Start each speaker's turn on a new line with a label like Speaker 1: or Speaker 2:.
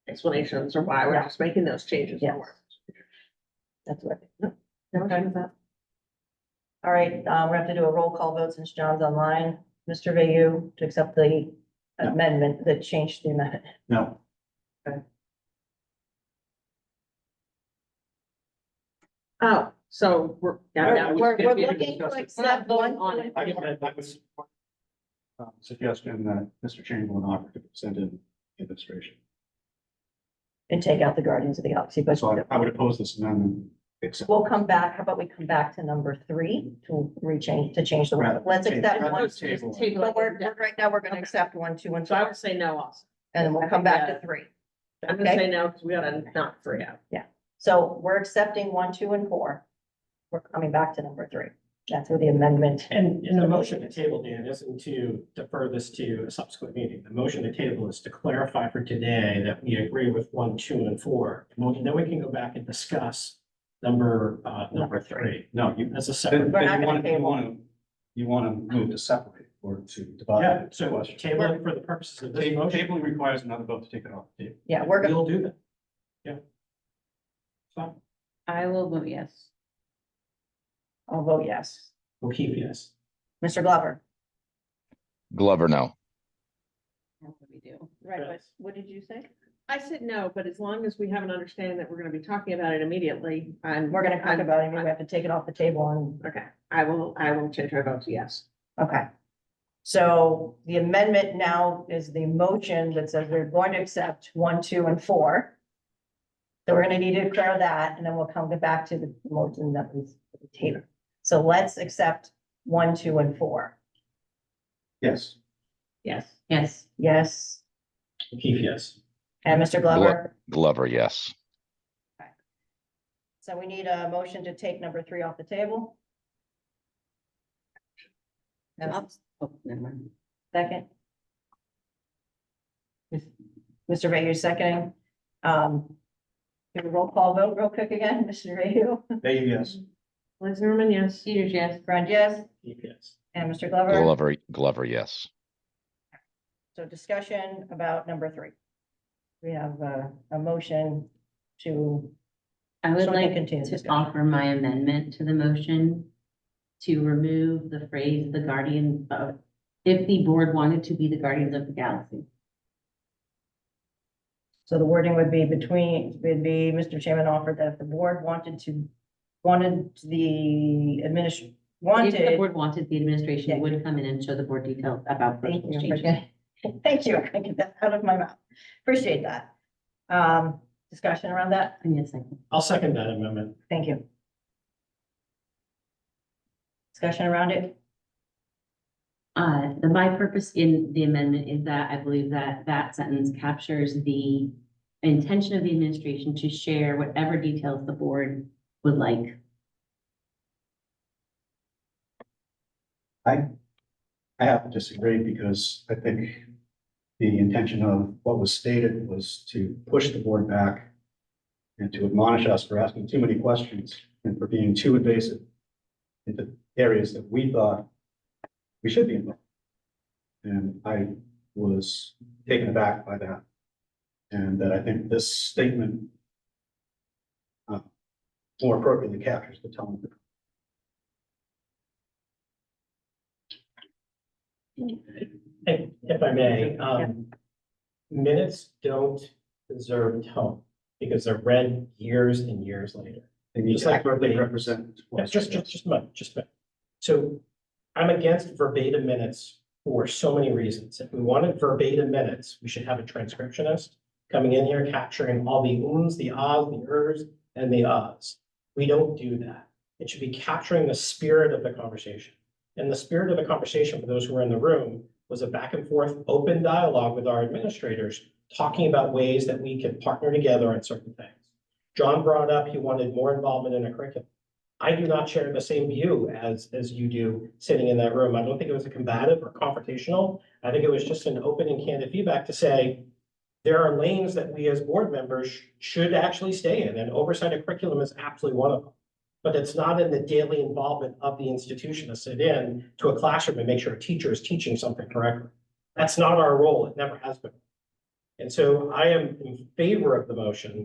Speaker 1: explanations or why we're just making those changes.
Speaker 2: Yes.
Speaker 1: or-
Speaker 2: That's what.
Speaker 1: Okay.
Speaker 2: All right, um, we have to do a roll call vote since John's online. Mr. Vayu to accept the amendment that changed the amendment.
Speaker 3: No,
Speaker 1: Oh, so we're.
Speaker 3: I-
Speaker 1: yeah,
Speaker 3: I
Speaker 1: yeah,
Speaker 3: was
Speaker 2: We're,
Speaker 1: gonna
Speaker 2: we're
Speaker 1: be-
Speaker 2: looking to
Speaker 1: We're not
Speaker 2: accept
Speaker 1: voting
Speaker 2: one.
Speaker 1: on it.
Speaker 3: I I- I would support, um, Suggestion that Mr. Chamberlain offer to send in the administration.
Speaker 2: And take out the Guardians of the Galaxy, but
Speaker 3: So I- I would oppose this amendment. except-
Speaker 2: we'll come back, how about we come back to number three to rechange, to change the word.
Speaker 3: Rather-
Speaker 2: Let's accept
Speaker 3: rather
Speaker 2: one.
Speaker 3: than table it.
Speaker 1: Table
Speaker 2: But we're,
Speaker 1: it.
Speaker 2: we're- right now, we're gonna
Speaker 1: Okay.
Speaker 2: accept one, two, and
Speaker 1: So I
Speaker 2: three,
Speaker 1: would say no also.
Speaker 2: and then we'll come back to three.
Speaker 1: I'm gonna
Speaker 2: Okay.
Speaker 1: say no, because we gotta knock three out.
Speaker 2: So we're accepting one, two, and four. We're coming back to number three. That's where the amendment,
Speaker 4: And in the motion to table, Dan, isn't to defer this to a subsequent meeting. The motion to table is to clarify for today that we agree with one, two, and four. And we- Then we can go back and discuss number, uh, number three.
Speaker 3: No, you,
Speaker 4: That's a
Speaker 3: then
Speaker 4: separate.
Speaker 2: We're not
Speaker 3: then you want,
Speaker 2: gonna
Speaker 3: you want to, you want to move to separate or to
Speaker 4: Yeah,
Speaker 3: divide. the
Speaker 4: so
Speaker 3: question.
Speaker 4: table it for the purposes of this
Speaker 3: Ta-
Speaker 4: motion.
Speaker 3: Tabling requires another vote to take it off the table.
Speaker 2: yeah, we're, go-
Speaker 4: We'll do that. Yeah. Fine.
Speaker 5: I will
Speaker 2: Oh,
Speaker 5: vote yes.
Speaker 2: I'll vote yes.
Speaker 4: We'll keep yes.
Speaker 2: Mr. Glover?
Speaker 6: Glover, no.
Speaker 5: That's what we do.
Speaker 4: Right, but
Speaker 2: what did you say?
Speaker 1: I said no, but as long as we have an understanding that we're gonna be talking about it immediately, I'm.
Speaker 2: We're gonna talk
Speaker 1: I'm-
Speaker 2: about it, and we have to take it off the table and,
Speaker 1: Okay, I will, I will change my vote to yes.
Speaker 2: okay. So the amendment now is the motion that says we're going to accept one, two, and four. So we're gonna need to declare that, and then we'll come back to the motion that was tabled. So let's accept one, two, and four.
Speaker 3: Yes.
Speaker 1: Yes.
Speaker 5: Yes,
Speaker 2: Yes,
Speaker 4: We'll keep yes.
Speaker 2: and Mr. Glover?
Speaker 6: Glover, yes.
Speaker 2: So we need a motion to take number three off the table. And I'll
Speaker 5: oh, never mind.
Speaker 2: second. Mr. Mayhew seconding. Um, do a roll call vote real quick again, Mr. Mayhew,
Speaker 3: Dave, yes.
Speaker 1: Liz Zimmerman, yes.
Speaker 5: Peters, yes.
Speaker 2: Grund, yes,
Speaker 4: Keep yes.
Speaker 2: and Mr. Glover.
Speaker 6: Glover, Glover, yes.
Speaker 2: So discussion about number three. We have a, a motion to,
Speaker 5: I would
Speaker 2: So we can
Speaker 5: like
Speaker 2: continue
Speaker 5: to
Speaker 2: discussion.
Speaker 5: offer my amendment to the motion to remove the phrase the guardian of, if the board wanted to be the guardians of the galaxy.
Speaker 2: so the wording would be between, would be, Mr. Chairman offered that if the board wanted to, wanted the administration,
Speaker 5: If the
Speaker 2: wanted.
Speaker 5: board wanted, the administration
Speaker 2: Yeah.
Speaker 5: would come in and show the board details about
Speaker 2: Thank
Speaker 5: personal
Speaker 2: you.
Speaker 5: changes.
Speaker 2: appreciate it. Thank you. I can get that out of my mouth. Appreciate that. Um, discussion around that.
Speaker 5: Give me a second.
Speaker 4: I'll second that amendment.
Speaker 2: Thank you. Discussion around it.
Speaker 5: Uh, the, my purpose in the amendment is that I believe that that sentence captures the intention of the administration to share whatever details the board would like.
Speaker 3: I have to disagree because I think the intention of what was stated was to push the board back and to admonish us for asking too many questions and for being too invasive into areas that we thought we should be involved. And I was taken aback by that. And that I think this statement uh, more appropriately captures the tone of the
Speaker 4: If, if I may, um, minutes don't deserve tone because they're read years and years later.
Speaker 3: They need
Speaker 4: Just
Speaker 3: to
Speaker 4: like
Speaker 3: accurately
Speaker 4: verbatim.
Speaker 3: represent.
Speaker 4: Yeah, just, just, just a moment, just a minute. So I'm against verbatim minutes for so many reasons. If we wanted verbatim minutes, we should have a transcriptionist coming in here capturing all the oohs, the ahs, the ers, and the ahs. We don't do that. It should be capturing the spirit of the conversation. And the spirit of the conversation for those who were in the room was a back and forth, open dialogue with our administrators, talking about ways that we could partner together on certain things. John brought up he wanted more involvement in a curriculum. I do not share the same view as, as you do sitting in that room. I don't think it was a combative or confrontational. I think it was just an open and candid feedback to say, there are lanes that we as board members sh- should actually stay in, and oversight of curriculum is absolutely one of them. But it's not in the daily involvement of the institution to sit in to a classroom and make sure a teacher is teaching something correctly. That's not our role. It never has been. And so I am in favor of the motion